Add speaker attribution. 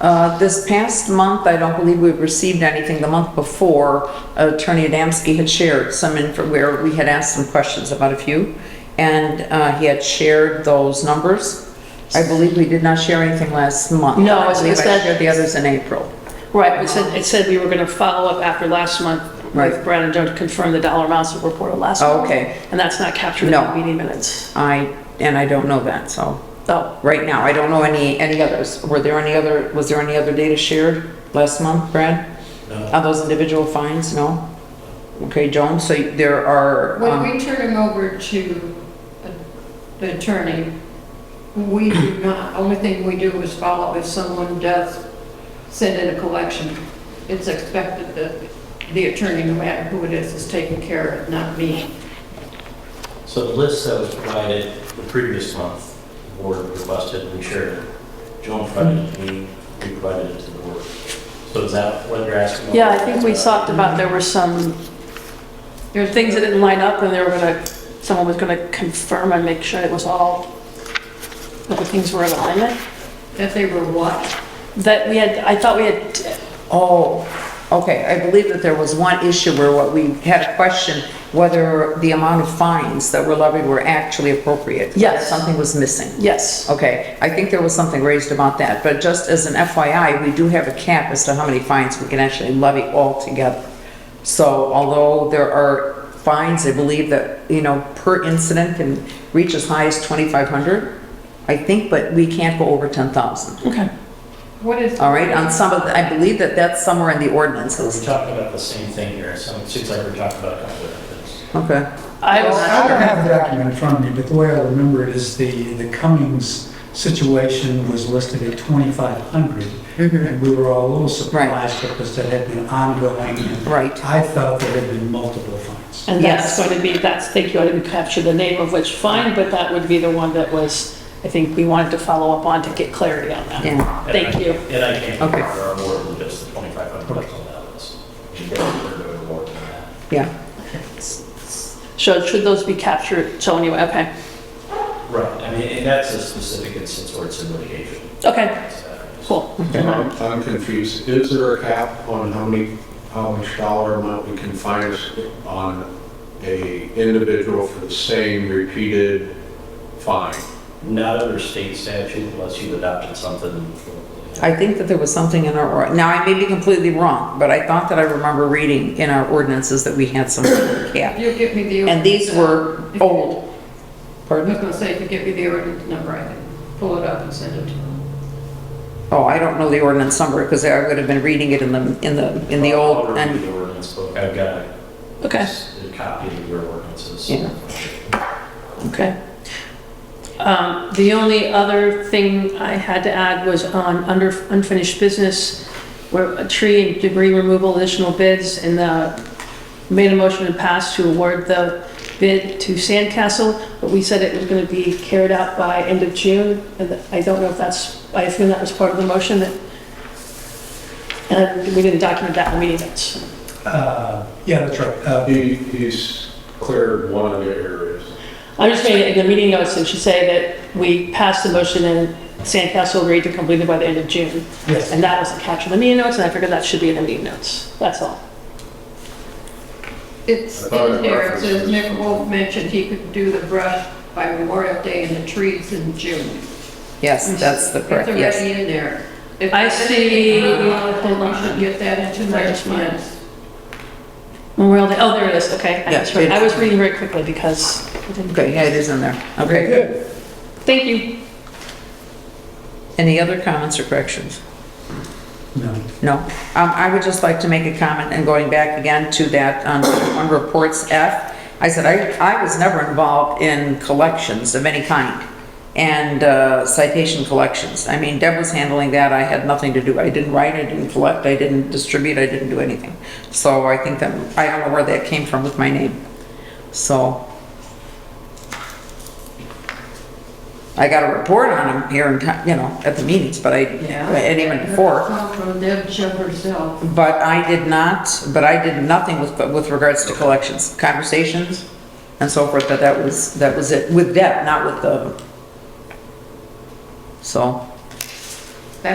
Speaker 1: Uh, This past month, I don't believe we've received anything. The month before, Attorney Adamski had shared some info where we had asked some questions about a few, and uh, he had shared those numbers. I believe we did not share anything last month.
Speaker 2: No, it's-
Speaker 1: I believe
Speaker 2: it's
Speaker 1: I
Speaker 2: that-
Speaker 1: shared the others in April.
Speaker 2: Right, it said, it said we were gonna follow up after last month
Speaker 1: Right.
Speaker 2: with Brad and Joe to confirm the dollar amounts that were reported last
Speaker 1: Oh,
Speaker 2: month.
Speaker 1: okay.
Speaker 2: And that's not captured in
Speaker 1: No.
Speaker 2: the meeting minutes.
Speaker 1: I, and I don't know that, so,
Speaker 2: Oh,
Speaker 1: right now, I don't know any, any others. Were there any other, was there any other data shared last month, Brad?
Speaker 3: No.
Speaker 1: On those individual fines, no? Okay, Joan, so there are,
Speaker 4: When
Speaker 1: um,
Speaker 4: we turn them over to a- the attorney, we do not, only thing we do is follow if someone does send in a collection. It's expected that the attorney, no matter who it is, is taking care of, it, not me.
Speaker 3: So the list that was provided the previous month, the board requested and we shared it. Joan provided it to me, we provided it to the board. So is that what you're asking? about?
Speaker 2: yeah, I think we talked about there were some
Speaker 4: There's
Speaker 2: things that didn't line up and they were gonna, someone was gonna confirm and make sure it was all, that the things were in alignment.
Speaker 4: That they were what?
Speaker 2: That we had, I thought we had,
Speaker 1: oh, okay, I believe that there was one issue where what we had a question, whether the amount of fines that were levied were actually appropriate.
Speaker 2: Yes.
Speaker 1: Something was missing.
Speaker 2: yes.
Speaker 1: Okay, I think there was something raised about that, but just as an FYI, we do have a cap as to how many fines we can actually levy altogether. So although there are fines, I believe that, you know, per incident can reach as high as 2,500, I think, but we can't go over 10,000.
Speaker 2: Okay.
Speaker 4: What is?
Speaker 1: All right, on some of, the- I believe that that's somewhere in the
Speaker 3: We're
Speaker 1: ordinances.
Speaker 3: talking about the same thing here, so it seems like we're talking about a couple different things.
Speaker 1: Okay,
Speaker 2: I
Speaker 5: I don't
Speaker 2: was,
Speaker 5: have the document in front of me, but the way I remember it is the, the Cummings situation was listed at 2,500. And we were all a little surprised because that had been ongoing. and
Speaker 1: Right.
Speaker 5: I thought there had been multiple fines.
Speaker 2: and that's
Speaker 1: Yes.
Speaker 2: going to be, that's, thank you, I didn't capture the name of which fine, but that would be the one that was, I think we wanted to follow up on to get clarity on that.
Speaker 1: yeah.
Speaker 3: And I-
Speaker 2: Thank you.
Speaker 3: And I can't
Speaker 1: Okay.
Speaker 3: remember our board with just the 2,500 bucks on that list. You guys are doing more than that.
Speaker 1: Yeah,
Speaker 2: So should those be captured? So anyway, okay,
Speaker 3: Right, I mean, and that's a specific instance where it's in litigation.
Speaker 2: okay, cool.
Speaker 6: I'm I'm confused. Is there a cap on how many, how much dollar amount we can fine on a individual for the same repeated fine?
Speaker 3: Not under state statute unless you've adopted something.
Speaker 1: I think that there was something in our, or- now I may be completely wrong, but I thought that I remember reading in our ordinances that we had some cap.
Speaker 4: You'll give me the.
Speaker 1: And these were
Speaker 4: ordinance.
Speaker 1: old.
Speaker 4: I was
Speaker 1: Pardon?
Speaker 4: gonna say, if you give me the ordinance number, I can pull it up and send it to them.
Speaker 1: Oh, I don't know the ordinance number because I would have been reading it in the, in the, in the
Speaker 3: I'll
Speaker 1: old,
Speaker 3: read
Speaker 1: and,
Speaker 3: the ordinance book. I've got
Speaker 2: Okay,
Speaker 3: a copy of your ordinances.
Speaker 1: Yeah.
Speaker 2: okay. Um, The only other thing I had to add was on under unfinished business, where a tree and debris removal additional bids, and uh, made a motion to pass to award the bid to Sandcastle, but we said it was going to be carried out by end of June, and I don't know if that's, I assume that was part of the motion, that- and we didn't document that in the meeting minutes.
Speaker 5: Uh, Yeah, that's right. Uh,
Speaker 6: He, he's cleared one of the areas.
Speaker 2: I just made it in the meeting notes, and she said that we passed the motion and Sandcastle agreed to complete it by the end of June.
Speaker 5: Yes.
Speaker 2: And that was captured in the meeting notes, and I figured that should be in the meeting notes. That's all.
Speaker 4: It's
Speaker 6: I thought it
Speaker 4: in there, it
Speaker 6: references-
Speaker 4: says Nick Wolf mentioned he could do the brush by Memorial Day and the trees in June.
Speaker 1: yes, that's the correct,
Speaker 4: It's
Speaker 1: yes.
Speaker 4: already in there. If
Speaker 2: I
Speaker 4: there's
Speaker 2: see-
Speaker 4: anything wrong with it, You should get that into my plans.
Speaker 2: Memorial Day, oh, there it is, okay. I
Speaker 1: Yeah,
Speaker 2: misread.
Speaker 1: it-
Speaker 2: I was reading very quickly because I didn't.
Speaker 1: Okay, yeah, it is in there. Okay, good.
Speaker 2: Thank you.
Speaker 1: Any other comments or corrections?
Speaker 5: No.
Speaker 1: No. Um, I would just like to make a comment and going back again to that on, on reports F. I said, I, I was never involved in collections of any kind and uh, citation collections. I mean, Deb was handling that. I had nothing to do. I didn't write, I didn't collect, I didn't distribute, I didn't do anything. So I think that, I don't know where that came from with my name. So. I got a report on them here in, town, you know, at the meetings, but I,
Speaker 4: Yeah.
Speaker 1: and even before.
Speaker 4: Come from Deb Cho herself.
Speaker 1: But I did not, but I did nothing with, with regards to collections, conversations and so forth, that that was, that was it, with debt, not with the, so,